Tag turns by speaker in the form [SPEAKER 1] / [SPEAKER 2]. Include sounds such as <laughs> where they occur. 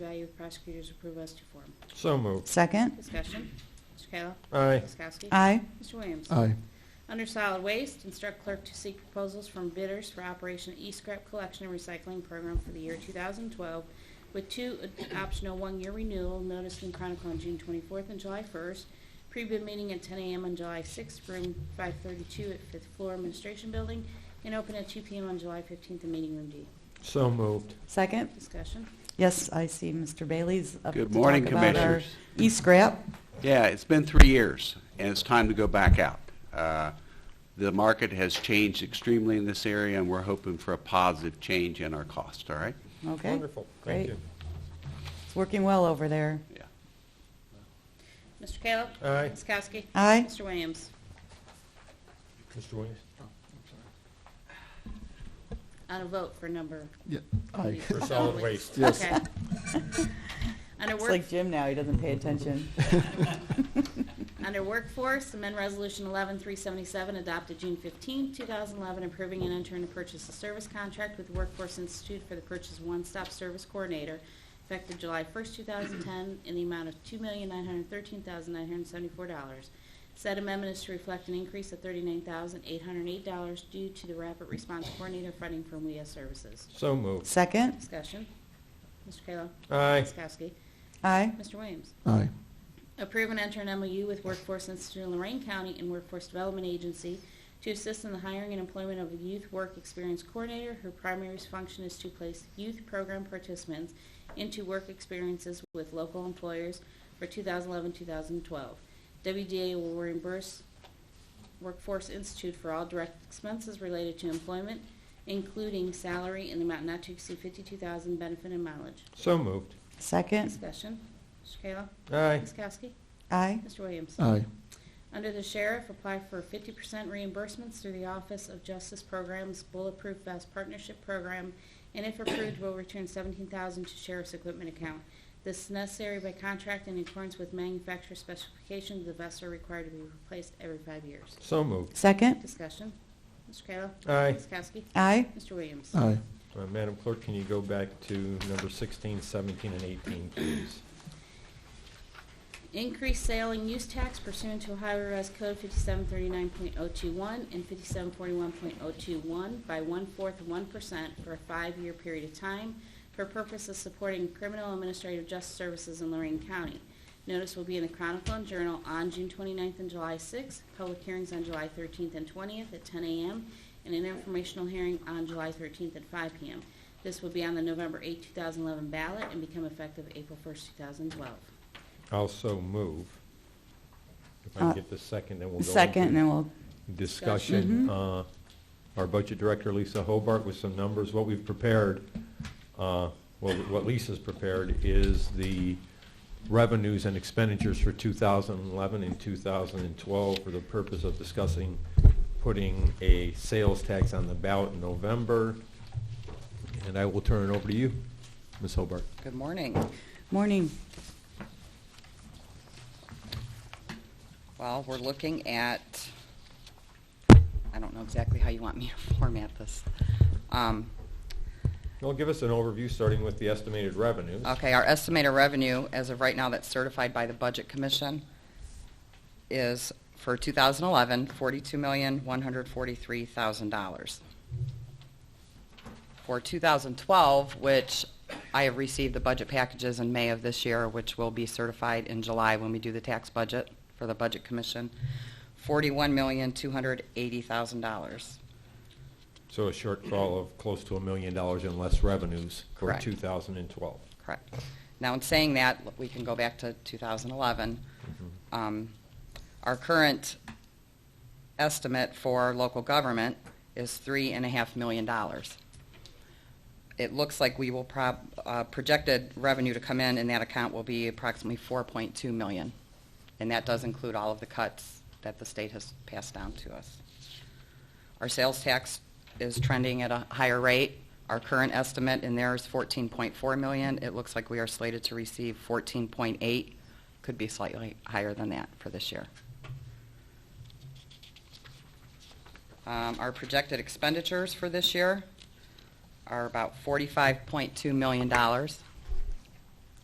[SPEAKER 1] value of prosecutor's approval as to form.
[SPEAKER 2] So moved.
[SPEAKER 3] Second.
[SPEAKER 1] Discussion. Mr. Kayla.
[SPEAKER 2] Aye.
[SPEAKER 1] Ms. Kowski.
[SPEAKER 3] Aye.
[SPEAKER 1] Mr. Williams.
[SPEAKER 4] aye,
[SPEAKER 1] Under solid waste, instruct clerk to seek proposals from bidders for Operation E-Scrap Collection and Recycling Program for the year 2012, with two optional one-year renewal noticed in Chronicle on June 24th and July 1st. Pre-bid meeting at 10 a.m. on July 6th, room 532 at 5th floor Administration Building, and open at 2 p.m. on July 15th in Meeting Room D.
[SPEAKER 2] So moved.
[SPEAKER 3] Second.
[SPEAKER 1] Discussion.
[SPEAKER 3] Yes, I see Mr. Bailey's up to
[SPEAKER 5] Good morning,
[SPEAKER 3] talk about our
[SPEAKER 5] Commissioners.
[SPEAKER 3] e-scrap.
[SPEAKER 5] Yeah, it's been three years, and it's time to go back out. Uh, The market has changed extremely in this area, and we're hoping for a positive change in our cost, all right?
[SPEAKER 3] Okay.
[SPEAKER 2] Wonderful. Thank
[SPEAKER 3] Great.
[SPEAKER 2] you.
[SPEAKER 3] It's working well over there.
[SPEAKER 5] Yeah.
[SPEAKER 1] Mr. Kayla.
[SPEAKER 2] Aye.
[SPEAKER 1] Ms. Kowski.
[SPEAKER 3] Aye.
[SPEAKER 1] Mr. Williams.
[SPEAKER 2] Mr. Williams?
[SPEAKER 1] On a vote for number.
[SPEAKER 4] yeah, aye.
[SPEAKER 2] For solid waste.
[SPEAKER 4] Yes.
[SPEAKER 1] Okay. <laughs> Under
[SPEAKER 3] It's
[SPEAKER 1] work.
[SPEAKER 3] like Jim now, he doesn't pay attention. <laughs>
[SPEAKER 1] Under Workforce, amend Resolution 11377 adopted June 15, 2011, approving an intern to purchase a service contract with Workforce Institute for the purchase of one-stop service coordinator effective July 1, 2010, in the amount of $2,913,974. Said amendment is to reflect an increase of $39,808 due to the rapid response coordinator funding from WEA Services.
[SPEAKER 2] So moved.
[SPEAKER 3] Second.
[SPEAKER 1] Discussion. Mr. Kayla.
[SPEAKER 2] Aye.
[SPEAKER 1] Ms. Kowski.
[SPEAKER 3] Aye.
[SPEAKER 1] Mr. Williams.
[SPEAKER 4] <laughs> aye,
[SPEAKER 1] Approve and enter an MOU with Workforce Institute in Lorraine County and Workforce Development Agency to assist in the hiring and employment of a youth work experience coordinator whose primary function is to place youth program participants into work experiences with local employers for 2011-2012. WDA will reimburse Workforce Institute for all direct expenses related to employment, including salary in the amount not to exceed 52000 benefit and mileage.
[SPEAKER 2] So moved.
[SPEAKER 3] Second.
[SPEAKER 1] Discussion. Mr. Kayla.
[SPEAKER 2] Aye.
[SPEAKER 1] Ms. Kowski.
[SPEAKER 3] Aye.
[SPEAKER 1] Mr. Williams.
[SPEAKER 4] aye,
[SPEAKER 1] Under the sheriff, apply for 50% reimbursements through the Office of Justice Programs Bulletproof Vest Partnership Program, and if approved, will return $17,000 to sheriff's equipment account. This is necessary by contract in accordance with manufacturer specifications. The vests are required to be replaced every five years.
[SPEAKER 2] So moved.
[SPEAKER 3] Second.
[SPEAKER 1] Discussion. Mr. Kayla.
[SPEAKER 2] Aye.
[SPEAKER 1] Ms. Kowski.
[SPEAKER 3] Aye.
[SPEAKER 1] Mr. Williams.
[SPEAKER 4] aye,
[SPEAKER 2] Uh, Madam Clerk, can you go back to number 16, 17, and 18, please?
[SPEAKER 1] Increase sale and use tax pursuant to Ohio Revised Code 5739.021 and 5741.021 by one-fourth of 1% for a five-year period of time for purpose of supporting criminal and administrative justice services in Lorraine County. Notice will be in the Chronicle and Journal on June 29th and July 6th, public hearings on July 13th and 20th at 10 a.m., and an informational hearing on July 13th at 5 p.m. This will be on the November 8, 2011 ballot and become effective April 1st, 2012.
[SPEAKER 2] Also move. If I can
[SPEAKER 3] Uh,
[SPEAKER 2] get the second, then we'll go.
[SPEAKER 3] Second, and
[SPEAKER 2] into
[SPEAKER 3] then we'll,
[SPEAKER 2] Discussion.
[SPEAKER 6] mm-hmm.
[SPEAKER 2] Uh, Our Budget Director, Lisa Hobart, with some numbers. What we've prepared, uh, well, what Lisa's prepared is the revenues and expenditures for 2011 and 2012 for the purpose of discussing putting a sales tax on the ballot in November. And I will turn it over to you, Ms. Hobart.
[SPEAKER 6] Good morning.
[SPEAKER 3] morning.
[SPEAKER 6] Well, we're looking at, I don't know exactly how you want me to <laughs> format this. Um,
[SPEAKER 2] Well, give us an overview, starting with the estimated revenues.
[SPEAKER 6] Okay, our estimated revenue, as of right now, that's certified by the Budget Commission, is for 2011, $42,143,000. For 2012, which I have received the budget packages in May of this year, which will be certified in July when we do the tax budget for the Budget Commission, $41,280,000.
[SPEAKER 2] So a shortfall of close to a million dollars in less revenues for
[SPEAKER 6] Correct.
[SPEAKER 2] 2012.
[SPEAKER 6] Correct. Now, in saying that, we can go back to 2011. Um, Our current estimate for local government is three and a half million dollars. It looks like we will prob, uh, projected revenue to come in in that account will be approximately 4.2 million. And that does include all of the cuts that the state has passed down to us. Our sales tax is trending at a higher rate. Our current estimate in there is 14.4 million. It looks like we are slated to receive 14.8, could be slightly higher than that for this year. Um, Our projected expenditures for this year are about $45.2 million.